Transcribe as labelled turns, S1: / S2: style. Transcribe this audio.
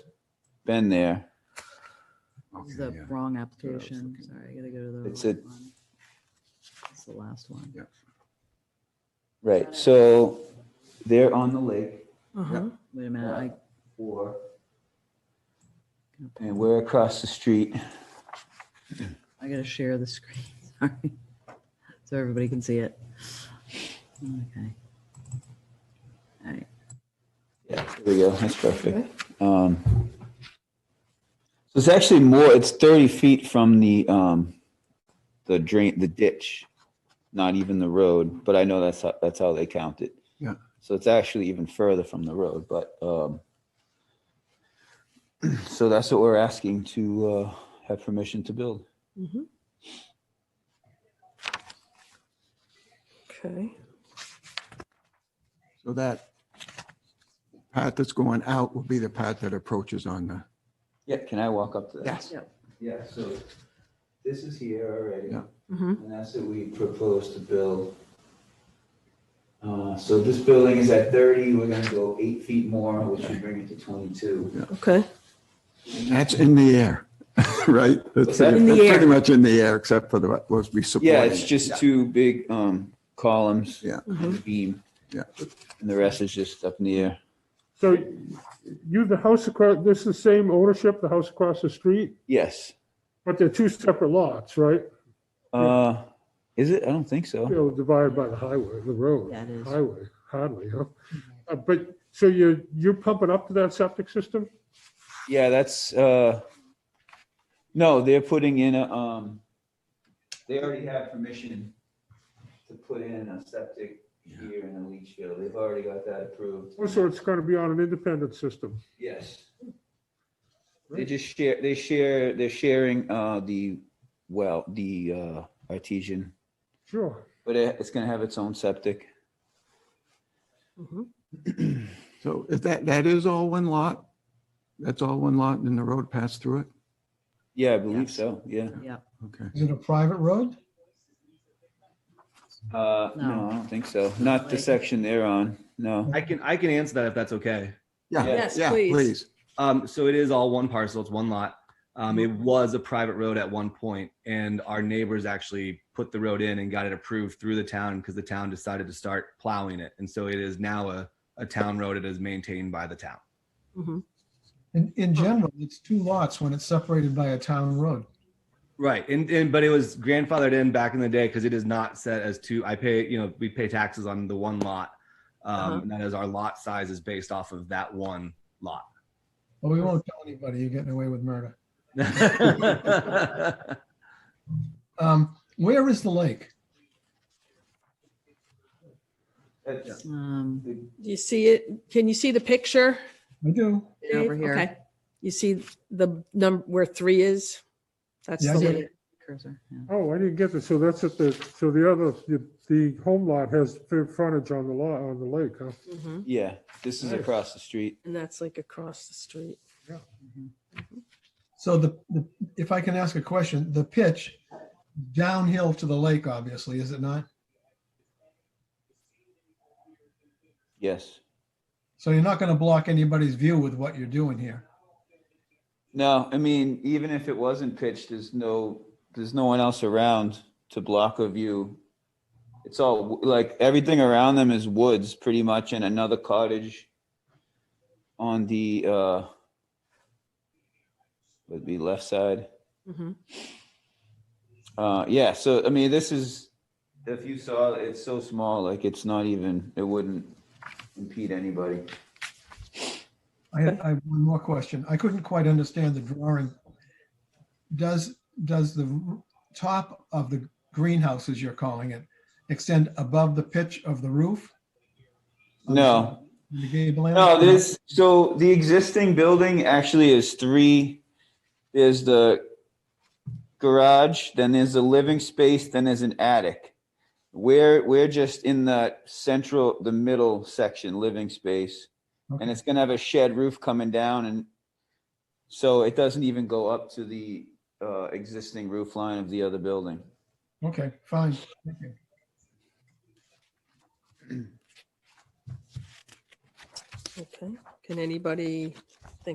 S1: been there.
S2: This is
S3: Oh, Okay,
S2: the
S3: yeah.
S2: wrong
S3: was
S2: application.
S3: looking-
S2: Sorry, I gotta go to the.
S1: It's
S2: right
S1: a-
S2: one. It's the last one.
S1: Right, so they're on the lake
S4: Uh-huh.
S2: Wait a minute, I.
S1: or,
S2: can pull-
S1: and we're across the street.
S2: I gotta share the screen, sorry. So everybody can see it. Okay. All right,
S1: Yeah, there we go, that's perfect. Um, So it's actually more, it's 30 feet from the, um, the drain, the ditch, not even the road, but I know that's, how that's how they count it.
S3: Yeah.
S1: So it's actually even further from the road, but, um, so that's what we're asking to, uh, have permission to build.
S4: Mhm. Okay,
S3: So that path that's going out will be the path that approaches on the,
S1: Yeah, can I walk up to that?
S3: yes,
S1: Yeah, so this is here already.
S3: Yeah.
S4: Mhm.
S1: And that's what we propose to build. Uh, So this building is at 30, we're gonna go eight feet more, which would bring it to 22.
S4: okay.
S3: that's in the air, right? That's
S1: that?
S4: In the
S3: that's Pretty
S4: air.
S3: much in the air, except for the, what was be supporting.
S1: Yeah, it's
S3: it.
S1: just two big um, columns.
S3: Yeah.
S1: And a beam.
S3: Yeah.
S1: And the rest is just up in the air.
S5: So you, the house across, this is the same ownership, the house across the street,
S1: Yes.
S5: but they're two separate lots, right?
S1: Uh, Is it? I don't think
S5: You
S1: so.
S5: know, divided by the highway, the road.
S2: Yeah, it is.
S5: Highway, hardly, huh? Uh, But, so you're, you're pumping up to that septic system?
S1: Yeah, that's, uh, no, they're putting in a, um, they already have permission to put in a septic here and a leach field. They've already got that approved.
S5: Or so it's gonna be on an independent system?
S1: Yes. They just share, they share, they're sharing, uh, the, well, the, uh, artesian,
S5: Sure.
S1: but it, it's gonna have its own septic.
S4: Mhm.
S3: So is that, that is all one lot? That's all one lot and then the road passed through it?
S1: Yeah, I believe so, yeah.
S2: yeah,
S3: Okay.
S6: Is it a private road?
S1: Uh, no,
S2: No.
S1: I don't think so. Not the
S2: Like-
S1: section they're on, no.
S7: I can I can answer that if that's okay.
S1: Yeah.
S3: Yeah,
S4: Yes,
S3: yeah,
S4: please.
S3: please.
S7: Um, so it is all one parcel. It's one lot. Um, it was a private road at one point, and our neighbors actually put the road in and got it approved through the town because the town decided to start plowing it, and so it is now a a town road. It is maintained by the town.
S4: Mhm.
S6: In, in general, it's two lots when it's separated by a town road.
S7: Right, and and but it was grandfathered in back in the day because it is not set as two. I pay you know we pay taxes on the one lot, um,
S4: Uh-huh.
S7: and that is our lot size is based off of that one lot.
S6: But we won't tell anybody you're getting away with murder. Um, where is the lake?
S1: That's-
S2: um,
S4: Do you see it? Can you see the picture?
S6: I do.
S2: Over
S4: Dave?
S2: here.
S4: Okay. You see the number where three is? That's
S6: Yeah, I
S4: the
S6: see
S4: lake.
S2: cursor, yeah.
S5: Oh, I didn't get this. So that's at the, so the other, the- the home lot has fair frontage on the lot, on the lake, huh?
S4: Mhm.
S1: Yeah, this is across the street.
S4: And that's like across the street.
S6: So the, the, if I can ask a question, the pitch downhill to the lake, obviously, is it not?
S1: Yes.
S6: So you're not going to block anybody's view with what you're doing here.
S1: No, I mean, even if it wasn't pitched, there's no, there's no one else around to block a view. It's all like everything around them is woods pretty much and another cottage on the, uh, would be left side.
S4: Mhm.
S1: Uh, yeah, so I mean, this is, if you saw, it's so small, like it's not even, it wouldn't impede anybody.
S6: I have, I have one more question. I couldn't quite understand the drawing. Does, does the r- top of the greenhouse, as you're calling it, extend above the pitch of the roof?
S1: No,
S6: The gable end?
S1: No, there's, so the existing building actually is three, there's the garage, then there's the living space, then there's an attic. We're, we're just in the central, the middle section, living space. And it's gonna have a shed roof coming down and so it doesn't even go up to the, uh, existing roof line of the other building.
S6: Okay, fine. Thank you.
S4: Okay. Can anybody